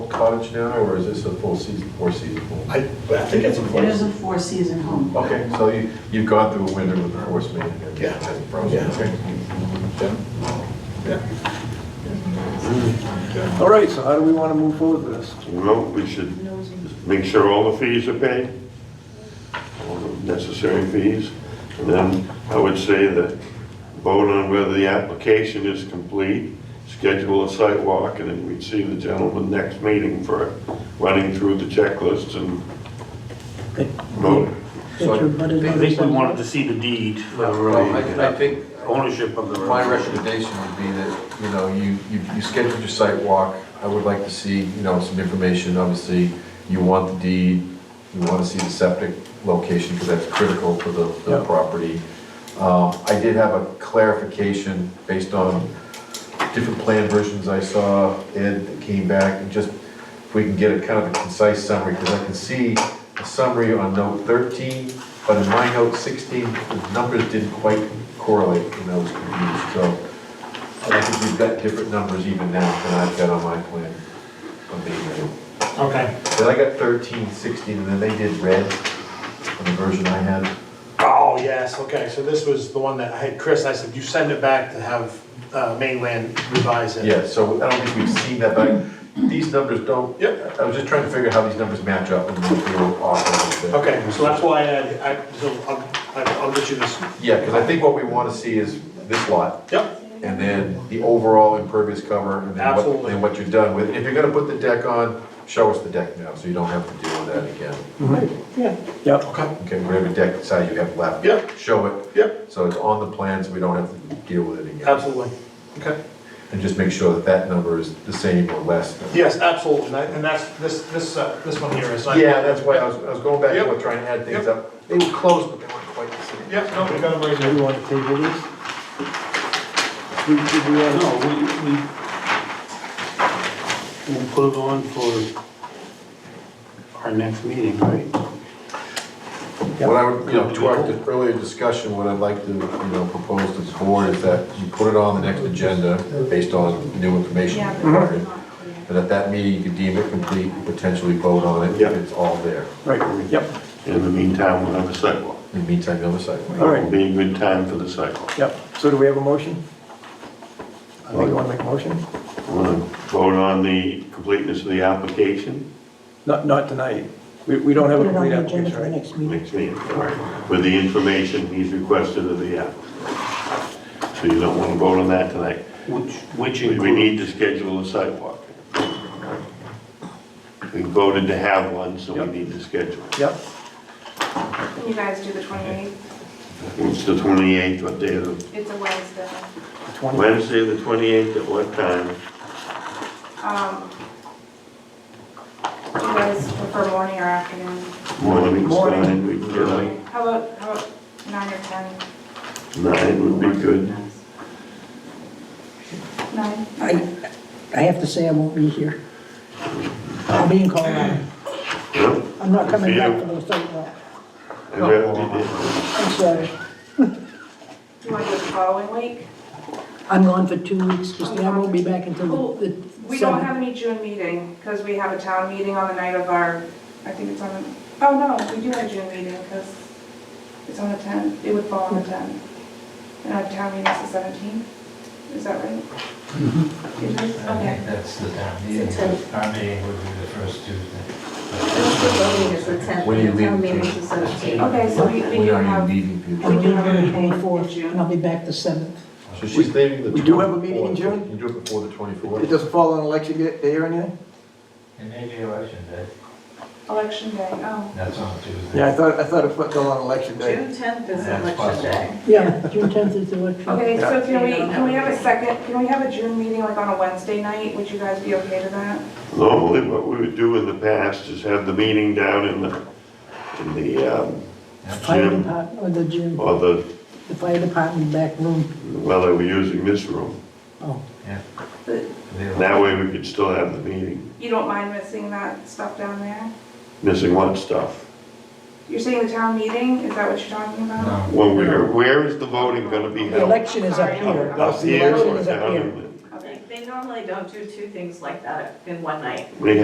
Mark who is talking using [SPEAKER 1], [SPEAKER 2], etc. [SPEAKER 1] cottage now, or is this a full season, four-season home?
[SPEAKER 2] I, but I think it's a
[SPEAKER 3] It is
[SPEAKER 2] place.
[SPEAKER 3] a four-season home.
[SPEAKER 1] Okay, so you, you've gone through a winter with the force main and
[SPEAKER 2] Yeah.
[SPEAKER 1] everything, and frozen,
[SPEAKER 2] Yeah.
[SPEAKER 1] okay?
[SPEAKER 2] Yeah. Yeah.
[SPEAKER 4] All right, so how do we want to move forward with this?
[SPEAKER 5] Well, we should make sure all the fees are paid, all the necessary fees. And then I would say that vote on whether the application is complete, schedule a site walk, and then we'd see the gentleman next meeting for running through the checklist and
[SPEAKER 6] Good.
[SPEAKER 5] vote.
[SPEAKER 6] Get your butters
[SPEAKER 7] I
[SPEAKER 6] on
[SPEAKER 7] think we
[SPEAKER 6] the-
[SPEAKER 7] wanted to see the deed for the
[SPEAKER 8] Oh,
[SPEAKER 9] Well,
[SPEAKER 7] road,
[SPEAKER 9] I I think
[SPEAKER 7] ownership of the road.
[SPEAKER 9] my recommendation would be that, you know, you, you you scheduled your site walk. I would like to see, you know, some information, obviously, you want the deed, you want to see the septic location, because that's critical for the, the
[SPEAKER 4] Yeah.
[SPEAKER 9] property. Um, I did have a clarification based on different plan versions I saw, Ed, that came back, and just, if we can get a kind of a concise summary, because I can see a summary on note thirteen, but in my note sixteen, the numbers didn't quite correlate, and I was confused, so. I think we've got different numbers even now than I've got on my plan, on being real.
[SPEAKER 8] Okay.
[SPEAKER 9] Then I got thirteen, sixteen, and then they did red on the version I had.
[SPEAKER 8] Oh, yes, okay, so this was the one that I had, Chris, I said, you send it back to have uh, mainland revise it.
[SPEAKER 9] Yeah, so I don't think we've seen that, but these numbers don't.
[SPEAKER 8] Yep.
[SPEAKER 9] I was just trying to figure how these numbers match up and if they were off a little bit.
[SPEAKER 8] Okay, so that's why I, I, so I'll, I'll I'll get you this.
[SPEAKER 9] Yeah, because I think what we want to see is this lot
[SPEAKER 8] Yep,
[SPEAKER 9] and then the overall impervious cover and then what,
[SPEAKER 8] Absolutely.
[SPEAKER 9] and what you're done with. If you're gonna put the deck on, show us the deck now, so you don't have to deal with that again.
[SPEAKER 4] Yep.
[SPEAKER 8] okay,
[SPEAKER 9] Okay, whatever deck size you have left.
[SPEAKER 8] Yep.
[SPEAKER 9] Show it.
[SPEAKER 8] Yep.
[SPEAKER 9] So it's on the plans, we don't have to deal with it again.
[SPEAKER 8] absolutely, okay.
[SPEAKER 9] And just make sure that that number is the same or less. than-
[SPEAKER 8] Yes, absolutely, and I- and that's, this, this, uh, this one here is.
[SPEAKER 9] Yeah, that's why I was, I was going back,
[SPEAKER 8] Yep.
[SPEAKER 9] to trying to add things
[SPEAKER 8] Yep.
[SPEAKER 9] up. They were close, but they weren't quite the same.
[SPEAKER 8] Yep, no, we got it right
[SPEAKER 4] Do
[SPEAKER 8] here.
[SPEAKER 4] you want to table this? We- we want-
[SPEAKER 7] No, we, we, we'll put it on for our next meeting, right?
[SPEAKER 9] What I would, you know, to our di- earlier discussion, what I'd like to, you know, propose to the board is that you put it on the next agenda based on new information
[SPEAKER 3] Yeah, but
[SPEAKER 9] required.
[SPEAKER 3] it's not clear.
[SPEAKER 9] And at that meeting, you could deem it complete, and potentially vote on it, if
[SPEAKER 5] Yep.
[SPEAKER 9] it's all there.
[SPEAKER 4] Right, yep,
[SPEAKER 5] In the meantime, we'll have a sidewalk.
[SPEAKER 9] In the meantime, the other side.
[SPEAKER 4] all
[SPEAKER 5] It'll
[SPEAKER 4] right,
[SPEAKER 5] be a good time for the sidewalk.
[SPEAKER 4] yep. So do we have a motion? I think you want to make a motion?
[SPEAKER 5] Want to vote on the completeness of the application?
[SPEAKER 4] Not, not tonight. We, we don't have
[SPEAKER 6] Put
[SPEAKER 4] a
[SPEAKER 6] it on
[SPEAKER 4] complete
[SPEAKER 6] the agenda for the
[SPEAKER 4] application, right?
[SPEAKER 6] next meeting.
[SPEAKER 5] Next meeting, all right, with the information he's requested of the applicant. So you don't want to vote on that tonight.
[SPEAKER 7] Which, which
[SPEAKER 5] We we need
[SPEAKER 7] includes,
[SPEAKER 5] to schedule a sidewalk. We voted to have one, so
[SPEAKER 4] Yep.
[SPEAKER 5] we need to schedule.
[SPEAKER 4] Yep,
[SPEAKER 10] Can you guys do the 28th?
[SPEAKER 5] It's the 28th, what day of,
[SPEAKER 10] It's a Wednesday.
[SPEAKER 4] the 20
[SPEAKER 5] Wednesday, the 28th, at what time?
[SPEAKER 10] Um, Do you guys prefer morning or afternoon?
[SPEAKER 5] Morning's
[SPEAKER 4] Morning.
[SPEAKER 5] fine, we can get up.
[SPEAKER 10] How about, how about 9 or 10?
[SPEAKER 5] Nine would be good.
[SPEAKER 10] 9?
[SPEAKER 6] I, I have to say I won't be here. I'll be in Colorado.
[SPEAKER 5] Yep.
[SPEAKER 6] I'm not coming
[SPEAKER 5] Yeah.
[SPEAKER 6] back for those site walks.
[SPEAKER 5] I'd rather
[SPEAKER 6] I'm sorry.
[SPEAKER 10] Do you want to do it the following week?
[SPEAKER 6] I'm gone for two weeks, Christine. I won't be back until the
[SPEAKER 10] We
[SPEAKER 6] the
[SPEAKER 10] don't
[SPEAKER 6] seventh.
[SPEAKER 10] have any June meeting because we have a town meeting on the night of our, I think it's on, the oh no, we do have a June meeting because it's on the 10th. It would fall on the 10th. And our town meeting is the 17th. Is that right? It is? Okay.
[SPEAKER 8] That's the town
[SPEAKER 3] meeting. It's a-
[SPEAKER 8] Our meeting would be the first Tuesday.
[SPEAKER 3] Voting is the tenth,
[SPEAKER 9] When do you
[SPEAKER 3] the town
[SPEAKER 9] leave?
[SPEAKER 3] meeting is the seventeenth.
[SPEAKER 10] Okay, so we, we
[SPEAKER 9] We
[SPEAKER 10] do
[SPEAKER 9] are
[SPEAKER 10] have,
[SPEAKER 9] in meeting people.
[SPEAKER 6] I'll be
[SPEAKER 10] We do have a
[SPEAKER 6] here the
[SPEAKER 10] meeting in
[SPEAKER 6] twenty-fourth
[SPEAKER 10] June.
[SPEAKER 6] and I'll be back the seventh.
[SPEAKER 9] So she's leaving the.
[SPEAKER 4] We do have a meeting in
[SPEAKER 9] 24th.
[SPEAKER 4] June?
[SPEAKER 9] You do it before the
[SPEAKER 4] It
[SPEAKER 9] 24th.
[SPEAKER 4] doesn't fall on election day or anything?
[SPEAKER 8] It may be election day,
[SPEAKER 10] election day, oh.
[SPEAKER 8] that's on Tuesday.
[SPEAKER 4] Yeah, I thought, I thought it fell on election day.
[SPEAKER 3] June tenth is
[SPEAKER 8] That's
[SPEAKER 3] election
[SPEAKER 8] possible.
[SPEAKER 3] day.
[SPEAKER 6] Yeah, June tenth is the election.
[SPEAKER 10] Okay, so can we,
[SPEAKER 3] Yeah.
[SPEAKER 10] can we have a second, can we have a June meeting like on a Wednesday night? Would you guys be okay to that?
[SPEAKER 5] Normally, what we would do in the past is have the meeting down in the, in the um,
[SPEAKER 6] Fire
[SPEAKER 5] gym,
[SPEAKER 6] department, or the gym,
[SPEAKER 5] or the,
[SPEAKER 6] the fire department back room.
[SPEAKER 5] well, they were using this room.
[SPEAKER 6] Oh,
[SPEAKER 5] That way, we could still have the meeting,
[SPEAKER 10] You don't mind missing that stuff down there?
[SPEAKER 5] missing one stuff.
[SPEAKER 10] You're saying the town meeting, is that what you're talking about?
[SPEAKER 5] When we are, where is the voting gonna be
[SPEAKER 6] the
[SPEAKER 5] held?
[SPEAKER 6] election is up here.
[SPEAKER 5] Up here
[SPEAKER 6] election
[SPEAKER 5] or
[SPEAKER 6] is up
[SPEAKER 5] down
[SPEAKER 6] here.
[SPEAKER 5] in
[SPEAKER 10] Okay.
[SPEAKER 3] They normally don't do two things like that in one night.
[SPEAKER 5] the? We